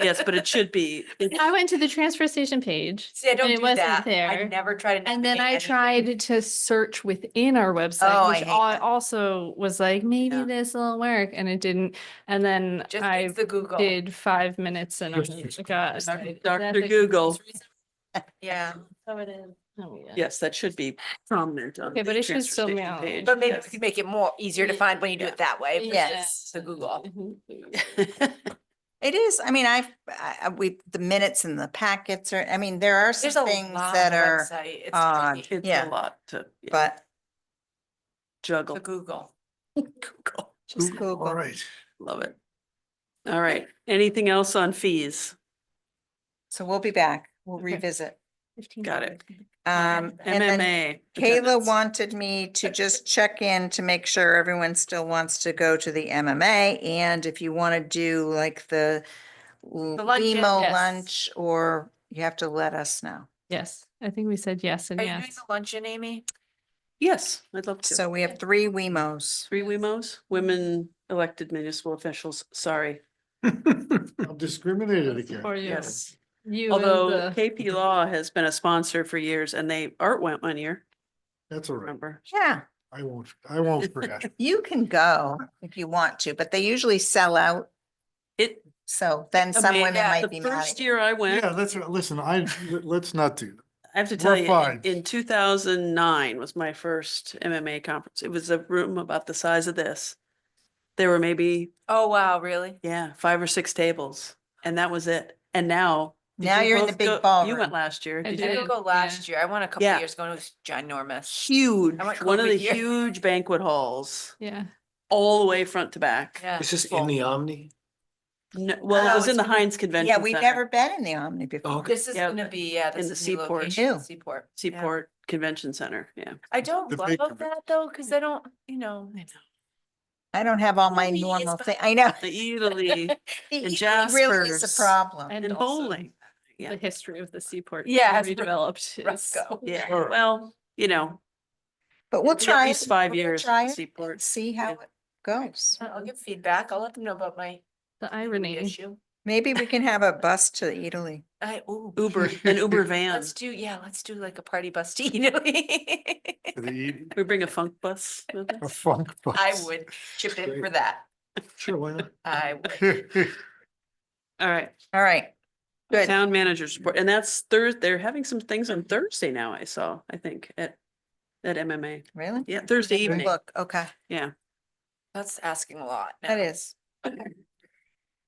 Yes, but it should be. it's- I went to the transfer station page See, I don't and it do wasn't that. I there. never try to. and then I navigate anything. tried to search within our Oh, website, I which hate I that. also was like, maybe Yeah. this will work and it didn't. And then Just I use the Google. did five minutes and I was like, God. Dr. Dr. Google. Yeah, oh, Yes, that should be prominent on. Okay, the but it should transfer still be station on. page. but maybe Yes. we can make it more easier to Yeah. find when you do it that way. but Yes. The Google. Mm-hmm. It is, I mean, I've, I, I- we, the minutes and the packets are, I mean, there are some There's a things lot that on the are, website. It's odd. tricky. It's Yeah. a lot to yeah, but juggle. The Google. Google. just Google. All right. Love it. All right. Anything else on fees? So we'll be back. We'll Okay. revisit. Got it. Um, and then MMA. Kayla attendance. wanted me to just check in to make sure everyone still wants to go to the MMA. And if you want to do like the l- luncheon, Limo yes. lunch, or you have to let us know. Yes, I think we said yes and Are you doing yes. the luncheon, Amy? Yes, I'd love to. So we have three Wemos. Three WEMOs, women elected municipal officials, sorry, I'm discriminated against. For you. yes. You and Although the- KP Law has been a sponsor for years and they, Art went one year, That's all right. remember? Yeah, I won't, I won't forget. you can go if you want to, but they usually sell out. It, So then some mean, women yeah, might be the mad. at first you. year I went, Yeah, let's, listen, I, let's not do, that. I have to We're tell you, in- fine. in two thousand nine was my first MMA conference. It was a room about the size of this. There were maybe, Oh, wow, really? yeah, five or six tables and that was it. And now. did Now you you're in the both big go- You ballroom. went last year. I did I you? did. didn't go Yeah. last year. I went a couple Yeah. years ago and it was ginormous. Huge, went one of the COVID year. huge banquet halls. Yeah. all the way front to back. Yeah. Is this full. in the Omni? No, well, it Oh, was in it's the in the- Heinz Convention Yeah, we've Center, never been in the Omni before. Okay. This is Yeah, gonna be, yeah, in this the is a new Seaport. location, Ew. Seaport. yeah. Seaport Convention Center, yeah. I don't The love bacon. that though, because I don't, you know, I don't have all my Only is normal behind- thing. I know. The Italy It And Really is Jaspers. a problem. and also bowling. Yeah. The history of the seaport. Yeah, being it's re- Redeveloped. is- Roscoe. Yeah, Sure. well, you know, But we'll it'll be at try. least it. five We'll years try at it Seaport. and See how Yeah. it goes. I'll give feedback. I'll let them know about my The Irony irony. issue. Maybe we can have a bus to Italy. I, ooh. Uber, an Uber van. Let's do, yeah, let's do like a party bus to Italy. to the- We bring a funk bus with a us. funk bus. I would chip in for Great. that. Sure, why not? I would. All right, All right. Good. town manager's report, and that's Thursday, they're having some things on Thursday now, I saw, I think, at, at MMA. Really? Yeah, Thursday Good evening, Look, okay, yeah. That's asking a lot. that now. is.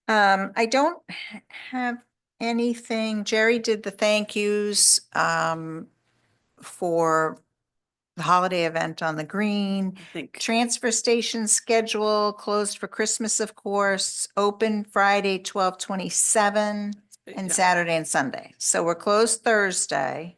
Um, I don't h- have anything. Jerry did the thank yous, um, for the holiday event on the green. I think. Transfer station schedule closed for Christmas, of course, open Friday, twelve twenty-seven and yeah, Saturday and Sunday. So we're closed Thursday,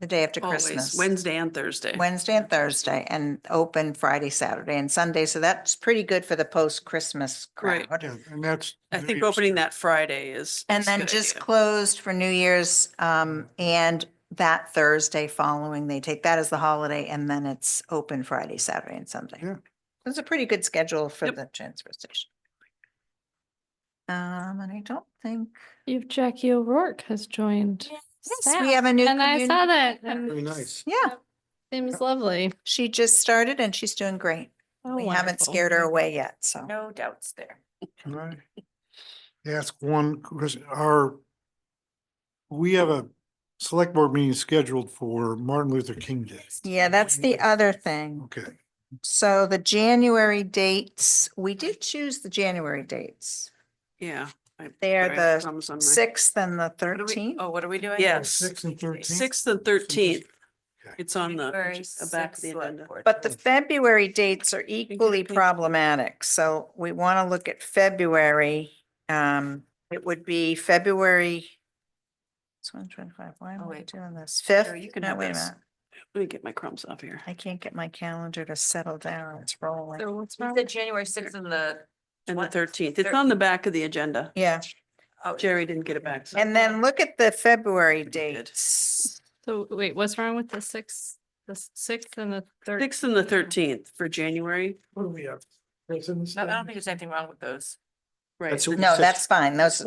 the day after always, Christmas. Wednesday and Thursday. Wednesday and Thursday and open Friday, Saturday and Sunday. So that's pretty good for the post-Christmas Right. crowd. Yeah, And that's. I New think Year's. opening that Friday is. And is a then good just idea. closed for New Year's, um, and that Thursday following, they take that as the holiday and then it's open Friday, Saturday and Sunday. Yeah. It's a pretty good schedule for Yep. the transfer station. Um, and I don't think, You've Jackie O'Rourke has joined. yes, we staff, have a new. And I communi- saw that Yeah. and Very nice. Yeah, seems lovely. she just started and she's doing great. Oh, We haven't wonderful. scared her away yet, so. No doubts there. Can I ask one question? Our, we have a select board meeting scheduled for Martin Luther King Day. Yeah, that's the other thing. Okay, So the January dates, we did choose the January dates. Yeah. I- They are sorry, the thumbs on my- Sixth and the What are we- thirteenth. Oh, what are we doing? Yes. six and thirteen. Sixth and thirteenth, it's on the, Very ag- uh, back of the six select agenda. board. But the February dates are equally Exactly. problematic, so we want to look at February. Um, it would be February. It's one twenty-five, why Oh, am I wait. doing this? Fifth? you can No, have wait a this. minute. Let me get my crumbs off here. I can't get my calendar to settle down, it's rolling. So what's You wrong? said January sixth and the. And the what? thirteenth, it's on the back of the agenda. Yeah, Oh, Jerry didn't get it back. so- and then look at the February Pretty good. dates. So wait, what's wrong with the sixth, the s- sixth and the third? Sixth and the thirteenth for January, What do we have? President's No, I Day? don't think there's anything wrong with those. right? That's the what we No, said. that's fine, those,